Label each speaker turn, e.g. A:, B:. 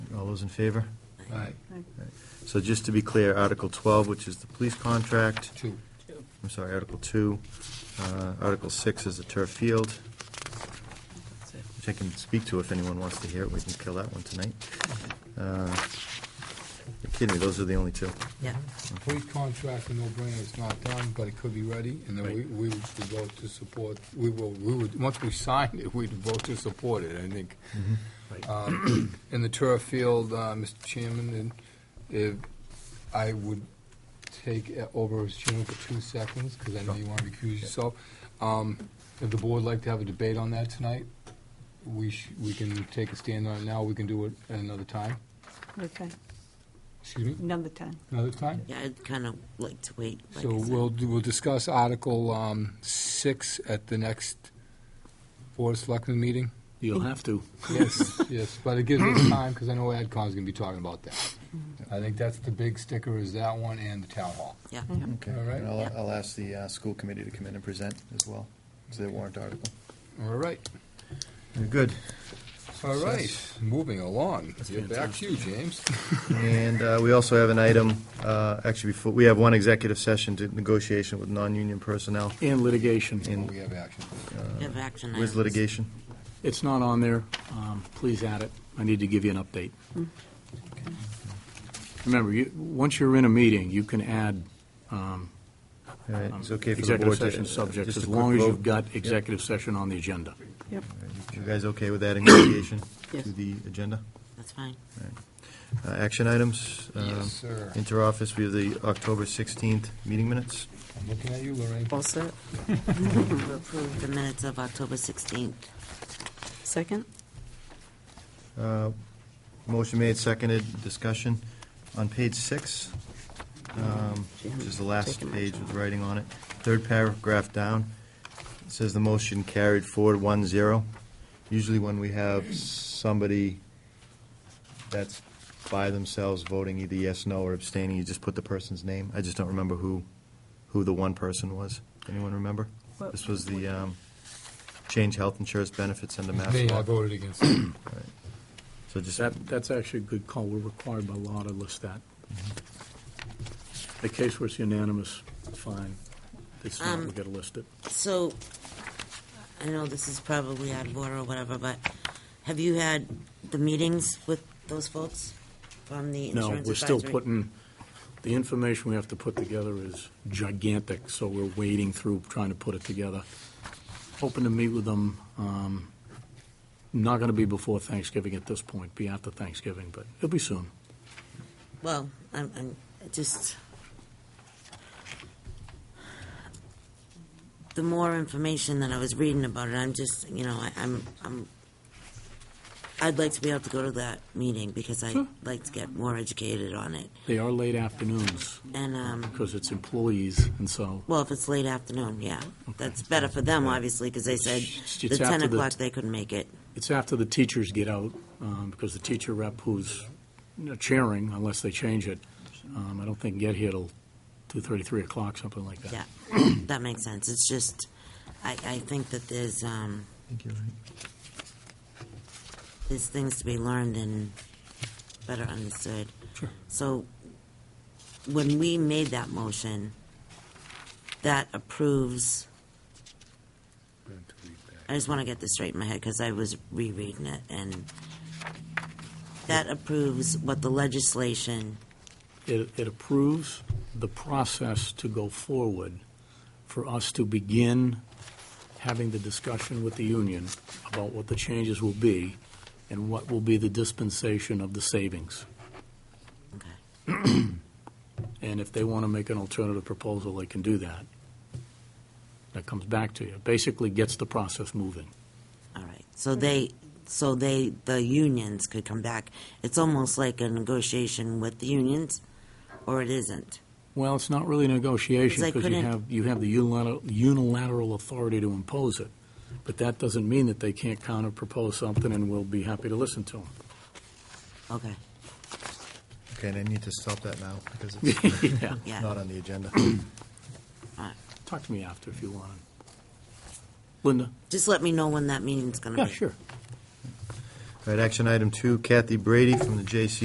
A: those in favor?
B: Aye.
A: So just to be clear, Article 12, which is the police contract,
B: Two.
A: I'm sorry, Article 2, uh, Article 6 is the turf field, which I can speak to if anyone wants to hear it, we can kill that one tonight. Uh, You're kidding me, those are the only two.
C: Yeah.
B: Police contract, a no-brainer, it's not done, but it could be ready, and then we,
A: Right.
B: we would vote to support, we will, we would, once we sign it, we'd vote to support it, I think.
A: Mm-hmm. Right.
B: Um, In the turf field, uh, Mr. Chairman, and if, I would take uh, over as chairman for two seconds, because I know you want to recuse yourself. Um, If the board would like to have a debate on that tonight, we sh, we can take a stand on it now, we can do it another time,
D: Okay,
B: excuse me,
D: another time.
B: another time?
C: Yeah, I'd kind of like to wait. like
B: So
C: I said.
B: we'll, do- we'll discuss Article um, 6 at the next Board of Selectmen meeting?
E: You'll have to.
B: Yes, yes, but it gives us time, because I know AdCom's going to be talking about that. I think that's the big sticker, is that one and the Town Hall.
C: Yeah.
A: Okay,
B: All right.
A: and I'll, I'll ask the uh, school committee to come in and present as well, as their warrant article.
B: All right,
A: Good.
B: all right, moving along.
E: That's
B: You're Back to you, James.
A: And uh, we also have an item, uh, actually, before, we have one executive session to negotiation with non-union personnel
E: And litigation.
A: in,
B: We have action.
C: We have action
A: with
C: items.
A: litigation.
E: It's not on there. Um, Please add it. I need to give you an update. Remember, you, once you're in a meeting, you can add um,
A: All right, it's okay for the
E: executive
A: board to...
E: session
A: uh,
E: subjects,
A: just a
E: as
A: quick
E: long as
A: vote.
E: you've got executive session on the agenda.
D: Yep.
A: You guys okay with adding litigation
C: Yes.
A: to the agenda?
C: That's fine.
A: Uh, Action items? um,
B: Yes, sir.
A: Interoffice, we have the October 16th meeting minutes.
B: I'm looking at you, Lorraine.
F: All set?
C: To approve the minutes of October 16th.
F: Second?
A: Uh, Motion made, seconded, discussion. On page six, um, which is the last
F: Taking my
A: page with
F: time.
A: writing on it, third paragraph down, it says the motion carried forward one zero. Usually when we have somebody that's by themselves voting either yes, no, or abstaining, you just put the person's name. I just don't remember who, who the one person was. Anyone remember?
D: What-
A: This was the um, change health insurance benefits under mass
B: Me, I
A: law.
B: voted against it.
A: So just
E: That, that's actually a good call. We're required by law to list that.
A: Mm-hmm.
E: The case where it's unanimous, fine. It's not,
C: Um,
E: we gotta list it.
C: So, I know this is probably out of order or whatever, but have you had the meetings with those folks from the insurance
E: No,
C: advisory?
E: we're still putting, the information we have to put together is gigantic, so we're wading through trying to put it together. Hoping to meet with them, um, not going to be before Thanksgiving at this point, be after Thanksgiving, but it'll be soon.
C: Well, I'm, I'm it just, the more information that I was reading about it, I'm just, you know, I, I'm, I'm, I'd like to be able to go to that meeting because I'd
E: Sure.
C: like to get more educated on it.
E: They are late afternoons,
C: And, um,
E: because it's employees, and so
C: well, if it's late afternoon, yeah, that's better for them, obviously, because they said
E: It's-
C: the
E: it's
C: ten
E: after the-
C: o'clock they couldn't make it.
E: it's after the teachers get out, um, because the teacher rep who's you know, chairing, unless they change it, um, I don't think get here till 2:30, 3 o'clock, something like that.
C: Yeah, that makes sense. It's just, I, I think that there's, um,
A: I think you're right.
C: there's things to be learned and better understood.
E: Sure.
C: So when we made that motion, that approves, I just want to get this straight in my head because I was rereading it and that approves what the legislation,
E: it, it approves the process to go forward for us to begin having the discussion with the union about what the changes will be and what will be the dispensation of the savings.
C: okay,
E: And if they want to make an alternative proposal, they can do that. That comes back to you. Basically gets the process moving.
C: all right. So they, so they, the unions could come back. It's almost like a negotiation with the unions or it isn't.
E: Well, it's not really
C: 'Cause
E: negotiation
C: I
E: because you
C: couldn't-
E: have, you have the unilateral, unilateral authority to impose it. But that doesn't mean that they can't counter-propose something and we'll be happy to listen to them.
C: Okay,
A: Okay, and I need to stop that now because it's
E: Yeah.
C: yeah.
A: not on the agenda.
E: Talk to me after if you want. Linda?
C: Just let me know when that meeting's gonna be.
E: Yeah, sure.
A: All right, action item two, Kathy Brady from the J.C.